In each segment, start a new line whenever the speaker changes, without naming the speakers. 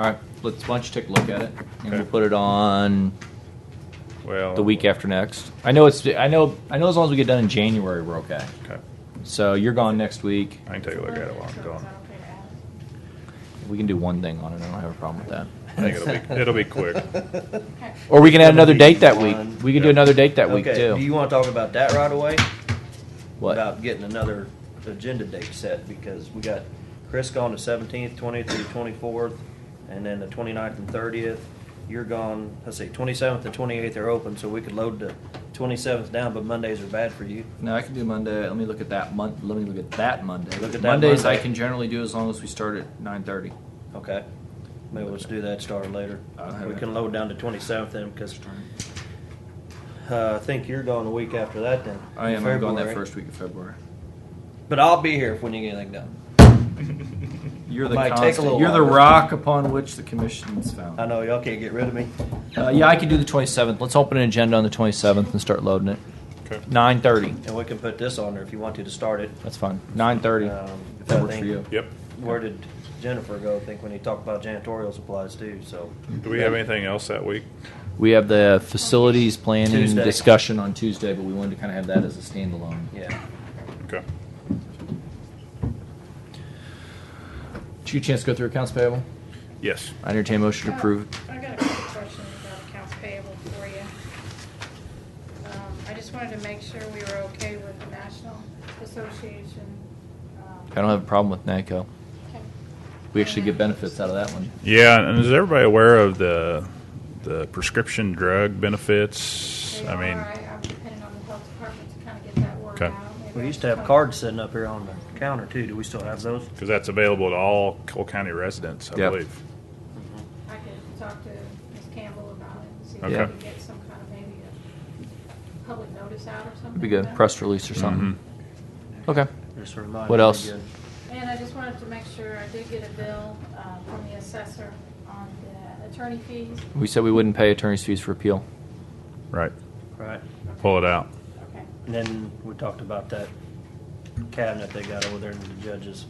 All right, let's, why don't you take a look at it, and we'll
Okay.
put it on
Well,
the week after next. I know it's, I know, I know as long as we get done in January, we're okay.
Okay,
So you're gone next week.
I can take a look at it while I'm gone.
We can do one thing on it. I don't have a problem with that.
I think it'll be it'll be quick.
Or we can add another
That'll be
date that week.
fun.
We can do
Yeah.
another date that
okay.
week too.
Do you want to talk about that right away?
What?
About getting another agenda date set because we got Chris gone the seventeenth, twentieth, through twenty-fourth, and then the 29th and thirtieth. You're gone. Let's see, twenty-seventh and twenty-eighth are open, so we could load the twenty-seventh down. But Mondays are bad for you.
No, I can do Monday. Let me look at that month. Let me look at that Monday.
Look at that
Mondays I
Monday.
can generally do as long as we start at nine thirty.
Okay. Maybe let's do that. Start later.
I'll have
We
it.
can load down to twenty-seventh then because uh, I think you're gone the week after that. Then
I am. I'm going that
February.
first week of February.
But I'll be here if we need anything done.
You're
I
the
might take a
constant.
little
You're the
longer.
rock upon which the commission's found.
I know y'all can't get rid of me.
Uh, yeah, I can do the 27th. Let's open an agenda on the 27th and start loading it.
Okay.
9:30.
And we can put this on there if you want to to start it.
That's fine. 9:30.
Um,
if that
I
works for
think-
you.
Yep.
Where did Jennifer go? I think when he talked about janitorial supplies too. So
Do we have anything else that week?
We have the facilities planning
Tuesday.
discussion on Tuesday, but we wanted to kind of have that as a standalone.
yeah,
Okay.
Did you get a chance to go through accounts payable?
Yes.
I entertain a motion to approve.
Uh, I got a couple questions about accounts payable for you. Um, I just wanted to make sure we were okay with the National Association. um,
I don't have a problem with NACO.
okay.
We actually get benefits out of that one.
Yeah, and is everybody aware of the the prescription drug benefits?
They
I mean,
are, I- I'm depending on the health department to kind of get that worked
Okay.
out. Maybe
we
I
used to
should
have
come-
cards sitting up here on the counter too. Do we still have those?
because that's available to all Cole County residents, I
Yep.
believe.
Mm-hmm.
I could talk to Ms. Campbell about it and see if we
Okay.
can get some kind of maybe a public notice out or something.
It'd be good,
about it.
press release or something. Okay.
Just a reminder.
What
we
else?
get-
And I just wanted to make sure, I did get a bill uh, from the assessor on the attorney fees.
We said we wouldn't pay attorney's fees for appeal.
Right.
Right.
Pull it out.
Okay.
And then we talked about that cabinet they got over there and the judges.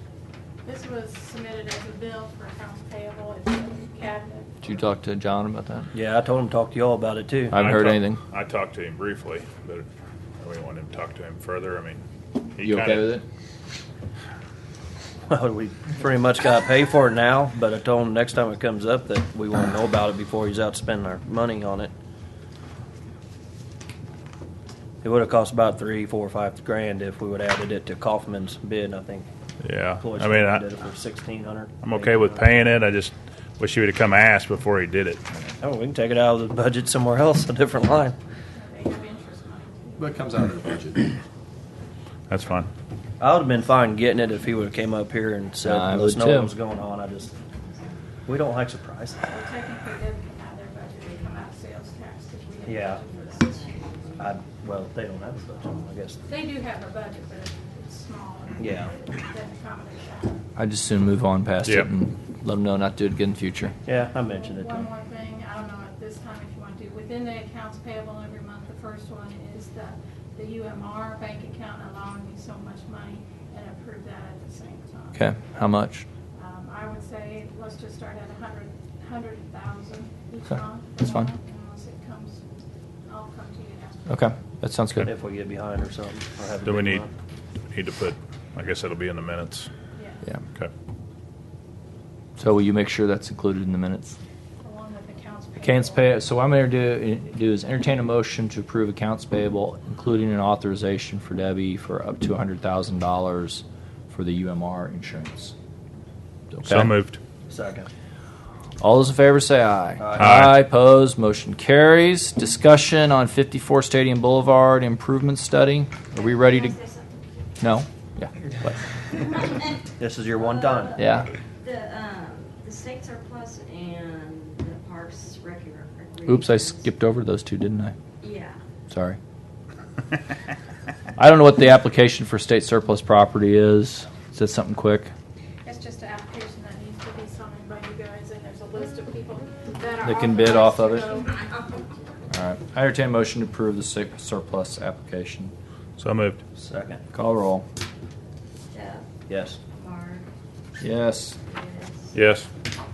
This was submitted as a bill for accounts payable, it's a cabinet.
Did you talk to John about that?
Yeah, I told them to talk to y'all about it too.
I haven't heard
talked-
anything.
I talked to him briefly, but we want him to talk to him further. I mean, he
You
kinda-
okay with it?
Well, we pretty much got to pay for it now, but I told him next time it comes up that we want to know about it before he's out spending our money on it. It would have cost about three, four, five grand if we would have added it to Kaufman's bid. I think.
Yeah.
Floyd
I mean,
did it
I,
for sixteen hundred.
I'm okay with paying it. I just wish he would have come ask before he did it.
Oh, we can take it out of the budget somewhere else, a different line.
They have interest money too.
But it comes out of the budget.
That's fine.
I would have been fine getting it if he would have came up here and said,
I
"Let us
would
know
too.
what was going on." I just, we don't like surprises.
Well, technically, it doesn't come out of their budget, it come out of sales tax, because we didn't
Yeah.
budget for this.
I, well, they don't have a budget, I guess.
They do have a budget, but it's- it's small. and
Yeah.
It doesn't accommodate that.
I just soon move on past
Yeah.
it and let them know not to do it again in the future.
Yeah, I mentioned it to
One
him.
more thing, I don't know at this time if you want to do, within the accounts payable every month, the first one is the, the UMR bank account allowing me so much money and approve that at the same time.
Okay. How much?
Um, I would say, let's just start at a hundred, hundred thousand each
Okay,
month.
that's fine.
Unless it comes, I'll come to you after.
Okay. That sounds good.
If we get behind or something, or have a
Do we
big
need
month.
need to put? I guess it'll be in the minutes.
Yeah.
Okay.
So will you make sure that's included in the minutes?
Along with accounts payable.
Accounts pay. So what I'm going to do, do is entertain a motion to approve accounts payable, including an authorization for Debbie for up to hundred thousand dollars for the UMR insurance. Okay.
So moved.
Second.
All those in favor say aye.
Aye.
Opposed. Motion carries. Discussion on 54 Stadium Boulevard improvement study. Are we ready to? No. Yeah. What?
This is your one time.
Yeah.
The, um, the states are plus and the parks regular.
Oops, I skipped over those two, didn't I?
Yeah.
Sorry. I don't know what the application for state surplus property is. Is that something quick?
It's just an application that needs to be signed by you guys, and there's a list of people that are.
That can bid off of
authorized to go.
All right. I entertain a motion to approve the sur- surplus application.
So moved.
Second.
Call roll.
Jeff,
Yes.
Mark,
Yes.
Liz,
Yes.